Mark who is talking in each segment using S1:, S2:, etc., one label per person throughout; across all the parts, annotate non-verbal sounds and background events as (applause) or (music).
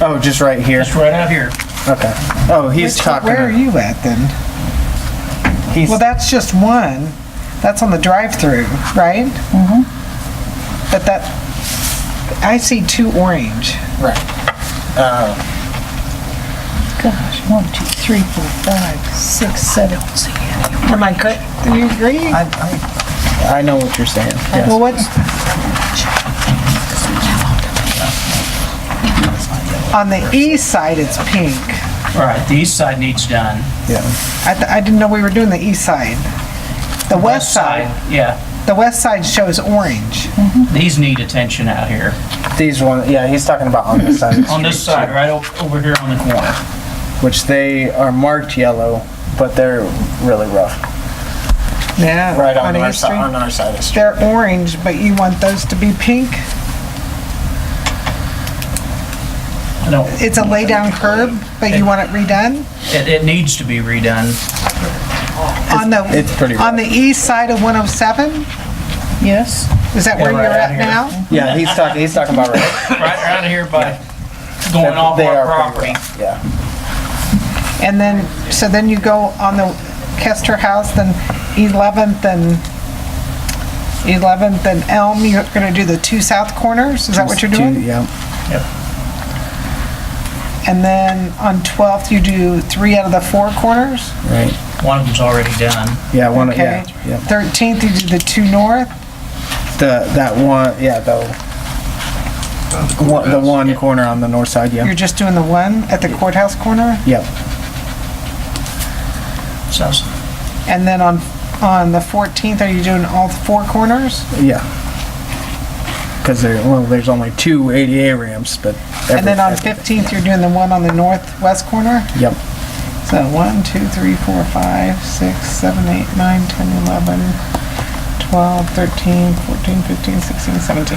S1: Oh, just right here.
S2: It's right out here.
S1: Okay. Oh, he's
S3: Which-
S1: talking.
S3: Where are you at then?
S1: He's,
S3: Well, that's just one. That's on the drive-through, right? Mm-hmm. But that, I see two orange.
S1: right.
S4: Gosh, one, two, three, four, five, six, seven.
S3: Am I good? Do you agree?
S1: I, I, I know what you're saying. Yes.
S3: Well, what's? On the east side, it's pink.
S2: All right, the east side needs done.
S1: yeah.
S3: I, th- I didn't know we were doing the east side. The west side,
S2: Yeah,
S3: the west side shows orange.
S2: these need attention out here.
S1: These one. Yeah, he's talking about (laughs) on this side. of the
S2: On this
S1: street,
S2: side, right o- over here on the corner.
S1: too, Which they are marked yellow, but they're really rough.
S3: Yeah.
S1: Right on, our
S3: East
S1: side.
S3: Street.
S1: On our side of the street.
S3: They're orange, but you want those to be pink?
S2: I don't,
S3: It's a lay-down curb, but you want it redone?
S2: it, it needs to be redone.
S3: On the,
S1: it's pretty rough.
S3: on the east side of 107?
S4: Yes?
S3: Is that
S2: Yeah,
S3: where you're
S2: right out
S3: at
S2: here.
S3: now?
S1: Yeah, he's talking. He's talking about right. (laughs)
S2: Right around here by going off
S1: They
S2: our
S1: are pretty
S2: property.
S1: rough, Yeah.
S3: And then, so then you go on the Kester House, then 11th and, 11th and Elm, you're gonna do the two south corners? Is that what you're
S1: Two-
S3: doing?
S1: Yeah.
S3: And then on 12th, you do three out of the four corners?
S1: Right.
S2: One of them's already done.
S1: Yeah. One. of
S3: Okay.
S1: Yeah. Yeah.
S3: 13th, you do the two north?
S1: The that one. Yeah. The. One, the one corner on the north side.
S3: You're
S1: Yeah.
S3: just doing the one at the courthouse corner?
S1: Yep.
S2: So,
S3: And then on, on the 14th, are you doing all four corners?
S1: Yeah. Because there, well, there's only two ADA ramps, but.
S3: And then on
S1: every-
S3: 15th, you're doing the one on the northwest corner?
S1: Yep.
S3: So 1, 2, 3, 4, 5, 6, 7, 8, 9, 10, 11, 12, 13, 14, 15, 16, 17.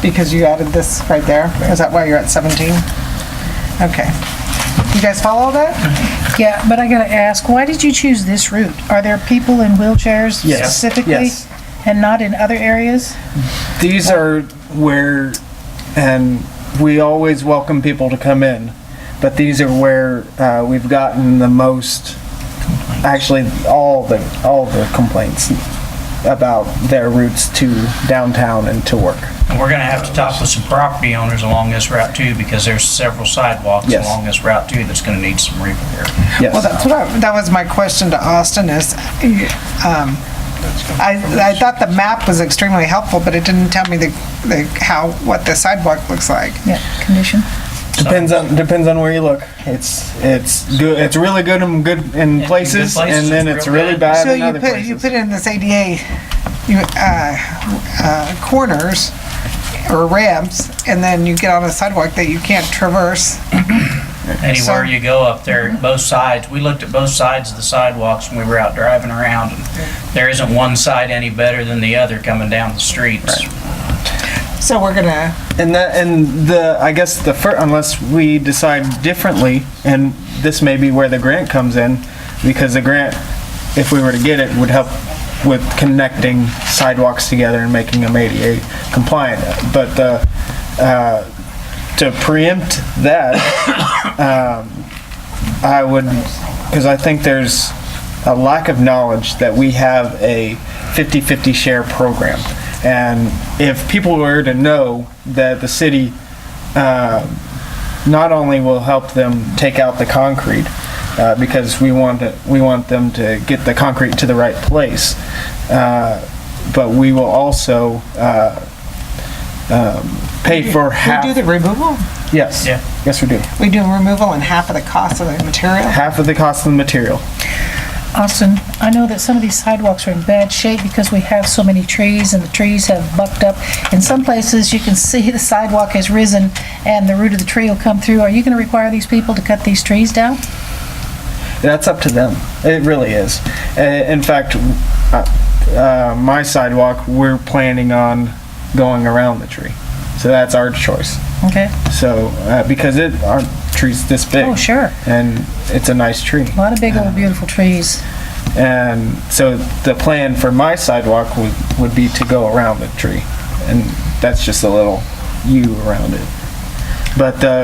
S3: Because you added this right there? Is that why you're at 17? Okay. You guys follow that?
S1: Mm-hmm.
S4: Yeah, but I gotta ask, why did you choose this route? Are there people in wheelchairs
S1: Yes,
S4: specifically?
S1: yes.
S4: And not in other areas?
S1: These are where, and we always welcome people to come in, but these are where uh, we've gotten the most, actually, all the, all the complaints about their routes to downtown and to work.
S2: and we're gonna have to talk with some property owners along this route too, because there's several sidewalks
S1: Yes.
S2: along this route too that's gonna need some repair.
S3: Well,
S1: Yes.
S3: that's what I, that was my question to Austin is, um, I, I thought the map was extremely helpful, but it didn't tell me the, the, how, what the sidewalk looks like.
S4: Yeah, condition.
S1: Depends on, depends on where you look. It's, it's good, it's really good in good, in places, and
S2: places,
S1: then
S2: it's
S1: it's
S2: real
S1: really
S2: bad.
S1: bad
S3: So
S1: in
S3: you
S1: other
S3: put, you
S1: places.
S3: put in this ADA, you, uh, uh, corners or ramps, and then you get on a sidewalk that you can't traverse.
S2: Anywhere
S3: So-
S2: you go up there, both sides, we looked at both sides of the sidewalks when we were out driving around. and There isn't one side any better than the other coming down the streets.
S3: So we're gonna,
S1: And that, and the, I guess the fir, unless we decide differently, and this may be where the grant comes in, because the grant, if we were to get it, would help with connecting sidewalks together and making them ADA compliant. But, uh, uh, to preempt that, um, I would, because I think there's a lack of knowledge that we have a 50-50 share program. And if people were to know that the city uh, not only will help them take out the concrete, uh, because we want, to- we want them to get the concrete to the right place, uh, but we will also uh, um, pay for half.
S3: we do the removal?
S1: Yes.
S2: Yeah.
S1: Yes, we do.
S3: We do removal and half of the cost of the material?
S1: Half of the cost of the material.
S4: Austin, I know that some of these sidewalks are in bad shape because we have so many trees and the trees have bucked up. In some places, you can (laughs) see the sidewalk has risen and the root of the tree will come through. Are you gonna require these people to cut these trees down?
S1: That's up to them. It really is. Uh, In fact, uh, uh, my sidewalk, we're planning on going around the tree. So that's our choice.
S4: Okay,
S1: So, uh, because it, our tree's this big.
S4: Oh, sure.
S1: And it's a nice tree.
S4: a lot of big old beautiful trees.
S1: And so the plan for my sidewalk would, would be to go around the tree. And that's just a little U around it. But uh, the